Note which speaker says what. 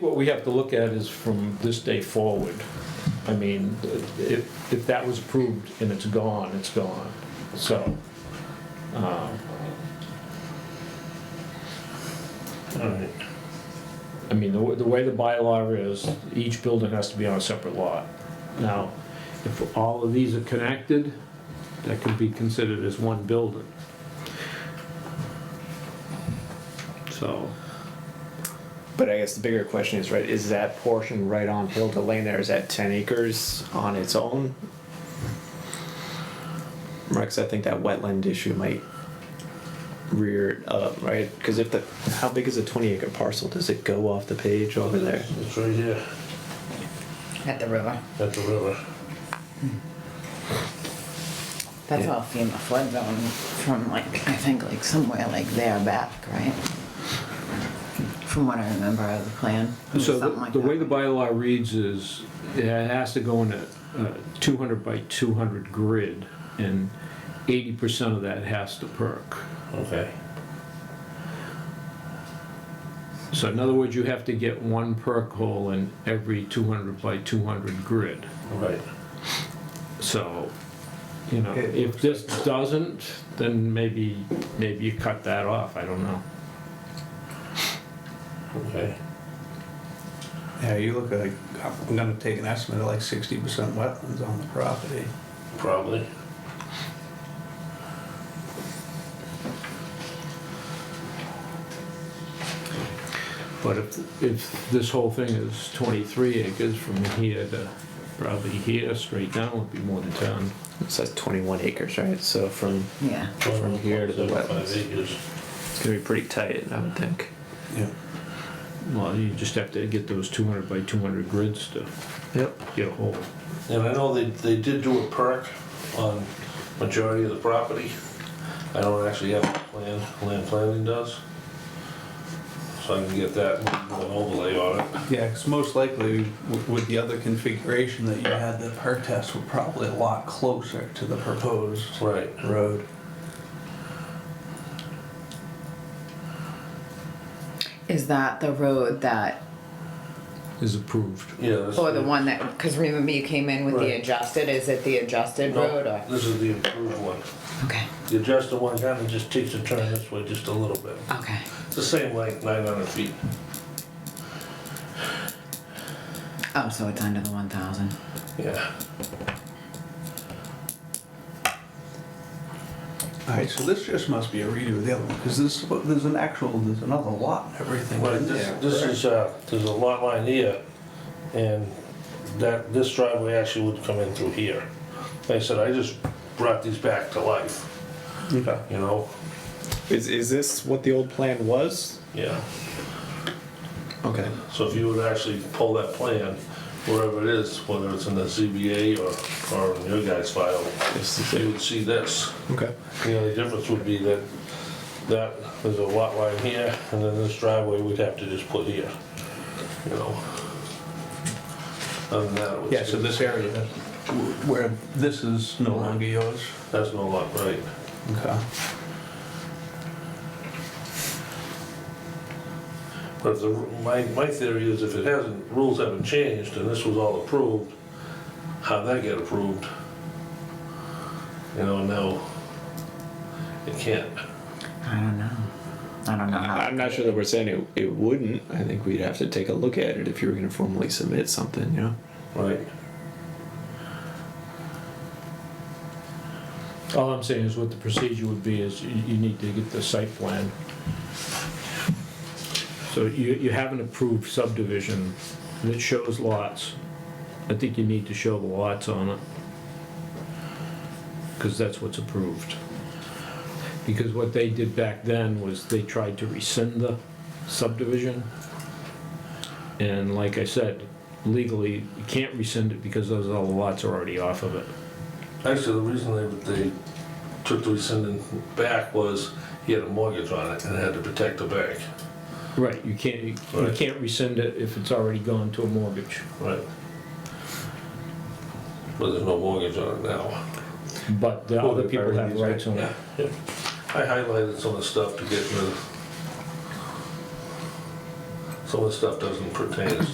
Speaker 1: What we have to look at is from this day forward. I mean, if, if that was approved and it's gone, it's gone, so. um,
Speaker 2: Alright,
Speaker 1: I mean, the, w- the way the bylaw is, each building has to be on a separate lot. Now, if all of these are connected, that could be considered as one building. So,
Speaker 3: But I guess the bigger question is, right, is that portion right on Hill to Lane there, is that ten acres on its own? Right, 'cause I think that wetland issue might rear it up, right? Cause if the, how big is a twenty acre parcel? Does it go off the page over there?
Speaker 2: it's right here,
Speaker 4: At the river.
Speaker 2: at the river.
Speaker 4: That's
Speaker 3: Yeah.
Speaker 4: all FEMA flood zone from like, I think like somewhere like there back, right? From what I remember of the plan. it was
Speaker 1: so
Speaker 4: something
Speaker 1: the,
Speaker 4: like
Speaker 1: the way the
Speaker 4: that.
Speaker 1: bylaw reads is, it has to go in a, uh two hundred by two hundred grid, and eighty percent of that has to perk.
Speaker 2: Okay,
Speaker 1: So in other words, you have to get one perk hole in every two hundred by two hundred grid.
Speaker 2: right.
Speaker 1: So, you know,
Speaker 2: It
Speaker 1: if this doesn't, then maybe, maybe you cut that off, I don't know.
Speaker 2: okay.
Speaker 5: Yeah, you look like, I'm gonna take an estimate of like sixty percent wetlands on the property.
Speaker 2: Probably.
Speaker 1: But if, if this whole thing is twenty-three acres from here to probably here, straight down would be more than ten.
Speaker 3: It says twenty-one acres, right? So from,
Speaker 4: Yeah,
Speaker 3: From here to the
Speaker 2: Five
Speaker 3: wetlands.
Speaker 2: acres.
Speaker 3: it's gonna be pretty tight, I would think.
Speaker 5: Yeah.
Speaker 1: Well, you just have to get those two hundred by two hundred grids to
Speaker 3: Yep.
Speaker 1: get a hole.
Speaker 2: And I know they, they did do a perk on majority of the property. I don't actually have a plan, land planning does. So I can get that and an overlay on it.
Speaker 5: Yeah, 'cause most likely w- with the other configuration that you had, the perk tests were probably a lot closer to the proposed
Speaker 2: Right,
Speaker 5: road.
Speaker 4: is that the road that,
Speaker 1: Is approved.
Speaker 2: yeah. that's-
Speaker 4: or the one that, cause remember you came in with the
Speaker 2: Right.
Speaker 4: adjusted, is it the adjusted road or?
Speaker 2: No, this is the improved one.
Speaker 4: Okay,
Speaker 2: The adjusted one kinda just takes a turn this way just a little bit.
Speaker 4: okay,
Speaker 2: It's the same length, nine hundred feet.
Speaker 4: oh, so it's under the one thousand,
Speaker 2: Yeah.
Speaker 5: Alright, so this just must be a redo of the other one, cause this, there's an actual, there's another lot and everything
Speaker 2: Right,
Speaker 5: in
Speaker 2: this,
Speaker 5: there.
Speaker 2: this
Speaker 5: correct?
Speaker 2: is, uh, there's a lot line here, and that, this driveway actually would come in through here. Like I said, I just brought these back to life,
Speaker 5: Okay.
Speaker 2: you know,
Speaker 3: Is, is this what the old plan was?
Speaker 2: yeah.
Speaker 3: Okay.
Speaker 2: So if you would actually pull that plan, wherever it is, whether it's in the ZBA or, or in your guys' file,
Speaker 3: This is
Speaker 2: you
Speaker 3: it,
Speaker 2: would see this.
Speaker 3: okay.
Speaker 2: The only difference would be that, that, there's a lot line here, and then this driveway we'd have to just put here, you know. Other than that, it would
Speaker 5: Yeah, so
Speaker 2: stay-
Speaker 5: this area, that- wh- where this is no longer yours.
Speaker 2: That's no luck, right?
Speaker 5: Okay.
Speaker 2: But if the, my, my theory is if it hasn't, rules haven't changed and this was all approved, how'd that get approved? You know, now, it can't.
Speaker 4: I don't know, I don't know how.
Speaker 3: Uh, I'm not sure that we're saying it, it wouldn't. I think we'd have to take a look at it if you were gonna formally submit something, you know?
Speaker 2: Right.
Speaker 1: All I'm saying is what the procedure would be is you, you need to get the site plan. So you, you have an approved subdivision that shows lots. I think you need to show the lots on it. Cause that's what's approved. Because what they did back then was they tried to rescind the subdivision. And like I said, legally, you can't rescind it because those, all the lots are already off of it.
Speaker 2: Actually, the reason they, they took the rescinding back was he had a mortgage on it and had to protect the bank.
Speaker 1: Right, you can't, you
Speaker 2: Right.
Speaker 1: can't rescind it if it's already gone to a mortgage.
Speaker 2: Right. But there's no mortgage on it now.
Speaker 1: But the
Speaker 5: Well,
Speaker 1: other
Speaker 5: they've
Speaker 1: people
Speaker 5: already
Speaker 1: have
Speaker 5: used it,
Speaker 1: rights on it.
Speaker 2: I highlighted some of the stuff to get rid of some of the stuff doesn't pertain, it's